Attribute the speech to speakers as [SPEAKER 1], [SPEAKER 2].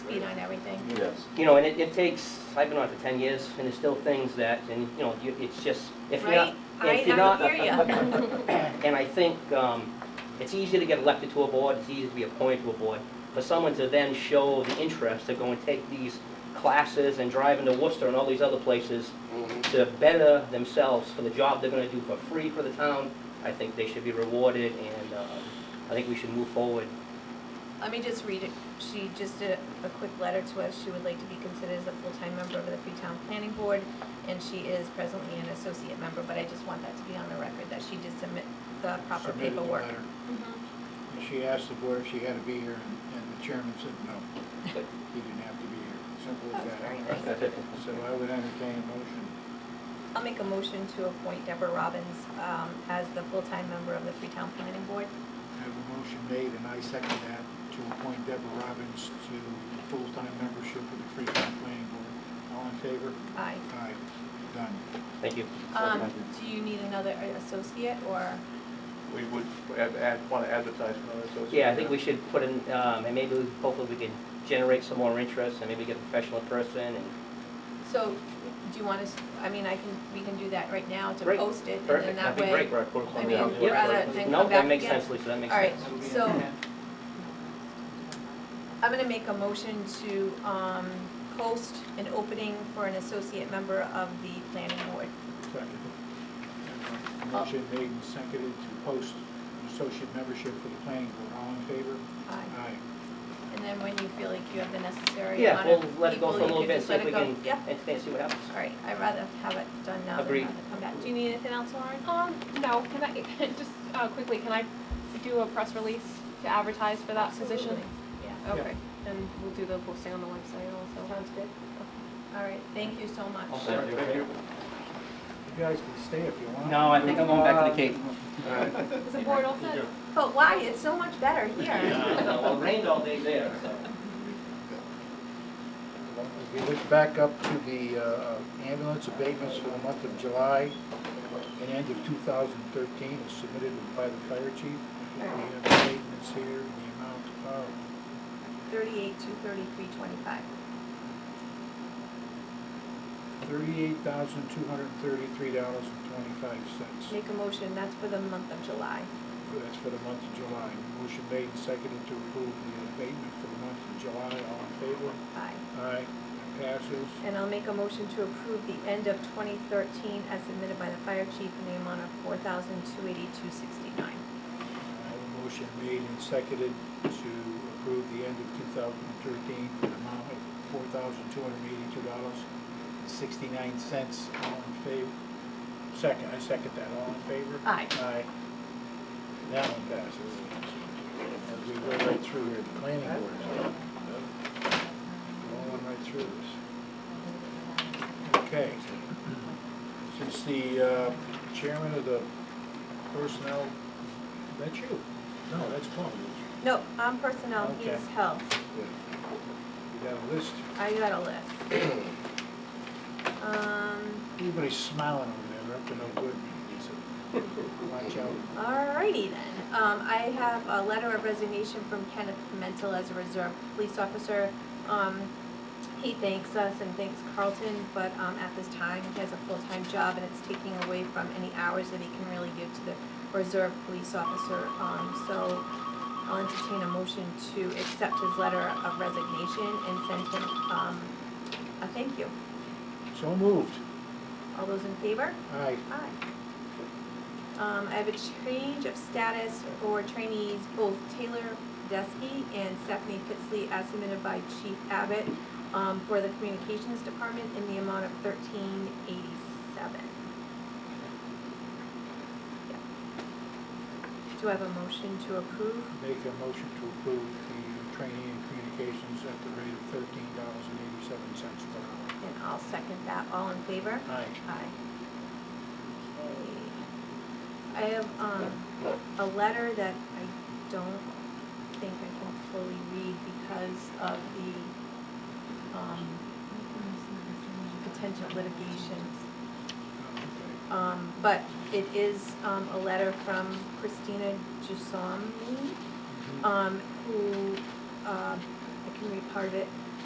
[SPEAKER 1] everything.
[SPEAKER 2] Yes.
[SPEAKER 3] You know, and it, it takes, I've been on it for ten years, and there's still things that, and, you know, you- it's just, if you're not,
[SPEAKER 1] Right?
[SPEAKER 3] if
[SPEAKER 1] I,
[SPEAKER 3] you're not.
[SPEAKER 1] I hear ya.
[SPEAKER 3] And I think, um, it's easy to get elected to a board, it's easy to be appointed to a board. For someone to then show the interest to go and take these classes and drive into Worcester and all these other places to better themselves for the job they're gonna do for free for the town, I think they should be rewarded, and, uh, I think we should move forward.
[SPEAKER 1] Let me just read it. She just did a quick letter to us. She would like to be considered as a full-time member of the Freetown Planning Board, and she is presently an associate member, but I just want that to be on the record, that she did submit the proper
[SPEAKER 4] submitted the
[SPEAKER 1] paperwork. Mm-hmm.
[SPEAKER 4] letter. And she asked the board if she had to be here, and- and the chairman said no. He didn't have to be here, simple as
[SPEAKER 1] That was very
[SPEAKER 4] that.
[SPEAKER 1] nice.
[SPEAKER 4] So I would entertain a motion.
[SPEAKER 1] I'll make a motion to appoint Deborah Robbins um, as the full-time member of the Freetown Planning Board.
[SPEAKER 4] I have a motion made, and I second that, to appoint Deborah Robbins to full-time membership of the Freetown Planning Board. All in favor?
[SPEAKER 1] Aye.
[SPEAKER 4] Aye, done.
[SPEAKER 3] Thank you.
[SPEAKER 1] Um, Do you need another uh, associate, or?
[SPEAKER 2] We would add- add, want to advertise another associate.
[SPEAKER 3] Yeah, I think we should put in, um, and maybe, we- hopefully we can generate some more interest and maybe get a professional person and,
[SPEAKER 1] So, do you want us, I mean, I can, we can do that right now to
[SPEAKER 3] Great.
[SPEAKER 1] post it, and then
[SPEAKER 3] perfect,
[SPEAKER 1] that
[SPEAKER 3] that'd be
[SPEAKER 1] way.
[SPEAKER 3] great.
[SPEAKER 2] Right, of course,
[SPEAKER 1] I
[SPEAKER 2] on
[SPEAKER 1] mean,
[SPEAKER 2] the
[SPEAKER 3] Yeah.
[SPEAKER 2] outlook.
[SPEAKER 1] rather than
[SPEAKER 3] No,
[SPEAKER 1] come back
[SPEAKER 3] that makes
[SPEAKER 1] again.
[SPEAKER 3] sense, Lisa, that makes
[SPEAKER 1] All right,
[SPEAKER 3] sense.
[SPEAKER 4] That'll be
[SPEAKER 1] so-
[SPEAKER 4] in the-
[SPEAKER 1] I'm gonna make a motion to, um, post an opening for an associate member of the planning board.
[SPEAKER 4] Second. I have a Motion made and seconded to post associate membership for the planning board. All in favor?
[SPEAKER 1] Aye.
[SPEAKER 4] Aye.
[SPEAKER 1] Uh, And then when you feel like you have the necessary
[SPEAKER 3] Yeah,
[SPEAKER 1] amount
[SPEAKER 3] we'll
[SPEAKER 1] of people,
[SPEAKER 3] let it go for a
[SPEAKER 1] you
[SPEAKER 3] little
[SPEAKER 1] could
[SPEAKER 3] bit,
[SPEAKER 1] just
[SPEAKER 3] see if we
[SPEAKER 1] let it
[SPEAKER 3] can,
[SPEAKER 1] go. Yeah,
[SPEAKER 3] and and see what happens.
[SPEAKER 1] all right, I'd rather have it done now than
[SPEAKER 3] Agreed.
[SPEAKER 1] have it come back. Do you need anything else, Lauren?
[SPEAKER 5] Um, no, can I, just, uh, quickly, can I do a press release to advertise for that position?
[SPEAKER 1] Absolutely. Yeah,
[SPEAKER 5] Okay, and we'll do the posting on the website also.
[SPEAKER 1] sounds good. All right, thank you so much.
[SPEAKER 3] Also,
[SPEAKER 2] Thank you.
[SPEAKER 4] You guys can stay if you want.
[SPEAKER 3] No, I think I'm going back to the Cape.
[SPEAKER 5] Is the board all set?
[SPEAKER 1] But why, it's so much better here.
[SPEAKER 3] Well, it rained all day there, so.
[SPEAKER 4] If you look back up to the uh, ambulance abatements for the month of July and end of 2013, as submitted by the fire chief. We have abatements here in the amount of,
[SPEAKER 1] Thirty-eight to thirty-three twenty-five.
[SPEAKER 4] $38,233.25.
[SPEAKER 1] Make a motion, that's for the month of July.
[SPEAKER 4] That's for the month of July. Motion made and seconded to approve the abatement for the month of July. All in favor?
[SPEAKER 1] Aye.
[SPEAKER 4] Aye. That Passes.
[SPEAKER 1] And I'll make a motion to approve the end of 2013 as submitted by the fire chief in the amount of 428269
[SPEAKER 4] I have a motion made and seconded to approve the end of 2013 for an amount of $4,282.69. All in favor? Second, I second that. All in favor?
[SPEAKER 1] Aye.
[SPEAKER 4] Aye. That one passes. As we go right through here, the planning board. Going right through this. Okay. Since the uh, chairman of the personnel, that's you? No, that's Paul.
[SPEAKER 1] No, on personnel,
[SPEAKER 4] Okay.
[SPEAKER 1] he's health.
[SPEAKER 4] You got a list.
[SPEAKER 1] I got a list. Um,
[SPEAKER 4] Everybody's smiling over there, they're up to no good. Watch out.
[SPEAKER 1] Alrighty then. Um, I have a letter of resignation from Kenneth Pimentel as a reserve police officer. Um, he thanks us and thanks Carlton, but, um, at this time, he has a full-time job and it's taking away from any hours that he can really give to the reserve police officer. Um, so I'll entertain a motion to accept his letter of resignation and send him, um, a thank you.
[SPEAKER 4] So moved.
[SPEAKER 1] All those in favor?
[SPEAKER 4] Aye.
[SPEAKER 1] Aye. Um, I have a change of status for trainees, both Taylor Deskey and Stephanie Pitsley, as submitted by Chief Abbott, um, for the Communications Department in the amount of thirteen eighty-seven. Do I have a motion to approve?
[SPEAKER 4] Make a motion to approve the training and communications at the rate of thirteen dollars and eighty-seven cents per
[SPEAKER 1] And I'll second that. All in favor?
[SPEAKER 4] hour. Aye.
[SPEAKER 1] Aye. Okay. I have, um, a letter that I don't think I can fully read because of the, um, potential litigation.
[SPEAKER 4] Okay.
[SPEAKER 1] Um, but it is, um, a letter from Christina
[SPEAKER 4] Mm-hmm.
[SPEAKER 1] Jussomi, um, who, um, uh, I can read part of it.